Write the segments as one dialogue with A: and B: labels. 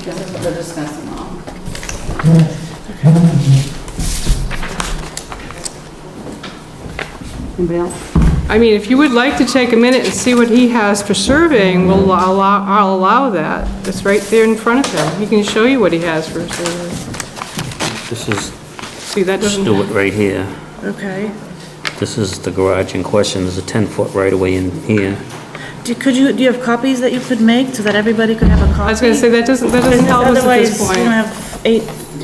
A: Just to discuss them all. Anybody else?
B: I mean, if you would like to take a minute and see what he has for surveying, we'll allow, I'll allow that. It's right there in front of him. He can show you what he has for surveying.
C: This is
B: See, that doesn't...
C: Stewart right here.
D: Okay.
C: This is the garage in question. There's a 10-foot right-of-way in here.
D: Do- Could you, do you have copies that you could make so that everybody could have a copy?
B: I was gonna say, that doesn't, that doesn't help us at this
D: Otherwise, you're gonna
B: point.
D: have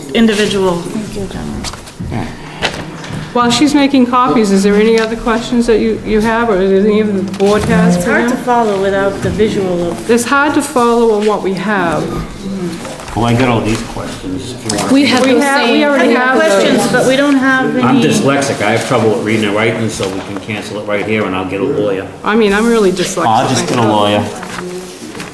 D: eight individual.
B: While she's making copies, is there any other questions that you, you have, or is any of the board has
D: It's
B: for
D: hard to
B: him?
D: follow without the visual of,
B: It's hard to follow on what we have.
C: Well, I got all these questions. if you want.
E: We have
B: We
E: those
B: have,
E: same.
B: we
D: I
B: already
D: have
B: have those.
D: questions, but we don't have any.
C: I'm dyslexic. I have trouble with reading and writing, so we can cancel it right here, and I'll get a lawyer.
B: I mean, I'm really dyslexic.
C: I'll just get a
B: myself.
C: lawyer.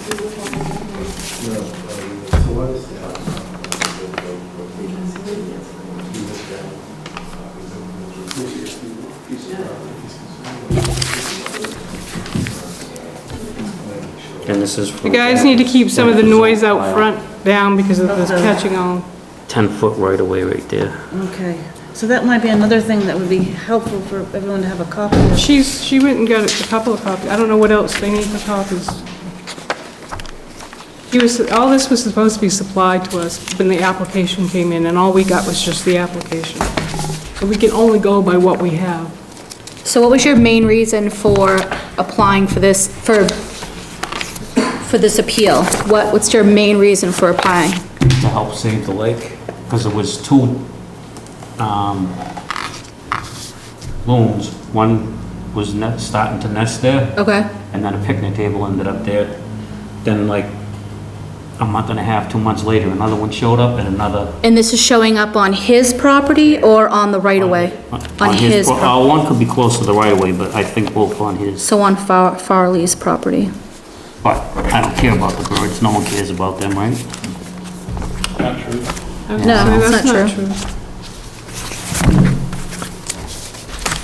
C: And this is.
B: You guys need to keep some of the noise out front down because of
D: Uh-huh.
B: this catching on.
C: 10-foot right-of-way right there.
D: Okay, so that might be another thing that would be helpful for everyone to have a copy of.
B: She's, she went and got a couple of copies, I don't know what else they need for copies. He was, all this was supposed to be supplied to us when the application came in, and all we got was just the application. So we can only go by what we have.
E: So what was your main reason for applying for this, for, for this appeal? What, what's your main reason for applying?
C: to help save the lake, because there was two um, looms. One was ne- starting to nest there,
E: Okay.
C: and then a picnic table ended up there. Then like a month and a half, two months later, another one showed up and another.
E: And this is showing up on his property or on the right-of-way? On his,
C: pro-
E: pro-
C: uh, One could be close to the right of way, but I think both on his.
E: so on Far- Farley's property?
C: But I don't care about the birds, no one cares about them, right?
E: No, it's not true.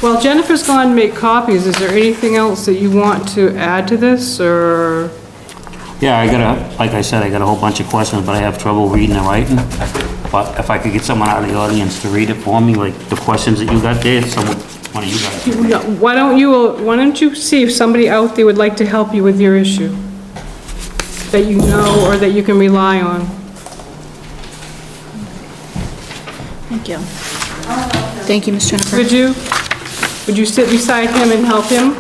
B: Well, Jennifer's gone to make copies, is there anything else that you want to add to this, or?
C: Yeah, I got a, like I said, I got a whole bunch of questions, but I have trouble reading and writing. But if I could get someone out of the audience to read it for me, like the questions that you got there, someone, one of you guys.
B: No, Why don't you, why don't you see if somebody out there would like to help you with your issue? That you know or that you can rely on?
D: Thank you.
E: Thank you, Ms. Jennifer.
B: Would you? Would you sit beside him and help him?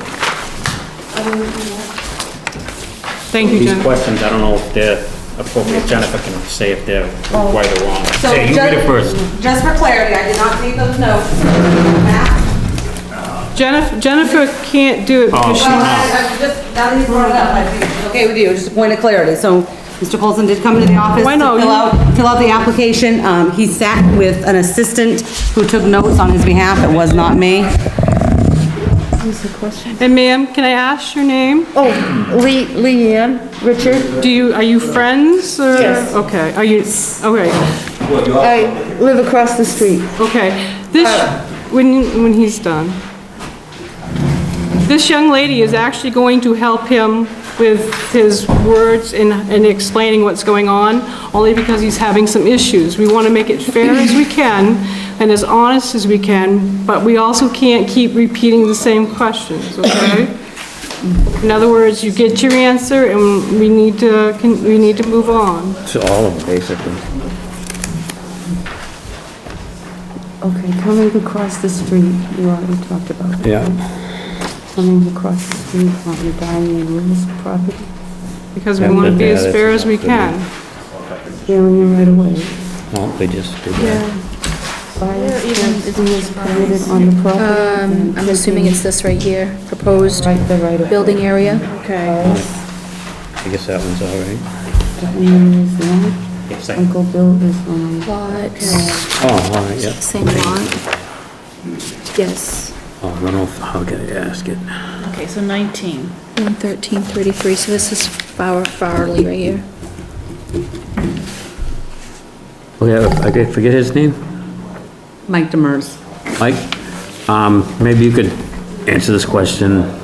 B: Thank you,
C: These
B: Jennifer.
C: questions, I don't know if they're appropriate, Jennifer can say if they're right or wrong.
A: So
C: Say, you read it
A: ju-
C: first.
A: Just for clarity, I did not take those notes. Matt?
B: Jennifer, Jennifer can't do it because
C: Oh.
B: she,
A: Well, I- I just, now that you brought it up, I think it's okay with you, just a point of clarity. So Mr. Colson did come into the office
B: Why
A: to
B: no,
A: fill
B: you-
A: out, fill out the application. Um, he sat with an assistant who took notes on his behalf. It was not me.
B: and ma'am, can I ask your name?
F: Oh, Lee, Leanne, Richard.
B: Do you, are you friends or? Yes. Okay, are you, okay,
F: I live across the street. Uh,
B: okay. This, when, when he's done. This young lady is actually going to help him with his words and, and explaining what's going on, only because he's having some issues. We want to make it fair as we can and as honest as we can, but we also can't keep repeating the same questions, okay? In other words, you get your answer and we need to, can- we need to move on.
C: To all of them, basically.
F: Okay, coming across the street, you already talked about it.
C: Yeah.
F: Coming across the street on the Diane Lewis property,
B: Because we want to be as fair as we can.
F: clearing it right away.
C: Well, they just did that.
F: Fire fencing is permitted on the property.
E: Um, I'm assuming it's this right here, proposed
F: Right, the right of.
E: building area?
D: Okay.
C: I guess that one's all right.
F: Diane is one,
C: Yes, I-
F: Uncle Bill is one.
E: Lots,
C: Oh, all right, yeah.
E: same lot? Yes.
C: Oh, I don't know if- how can I ask it?
D: Okay, so 19.
E: 11333, so this is Far- Farley right here.
C: Okay, I did forget his name?
A: Mike Demers.
C: Mike, um, maybe you could answer this question.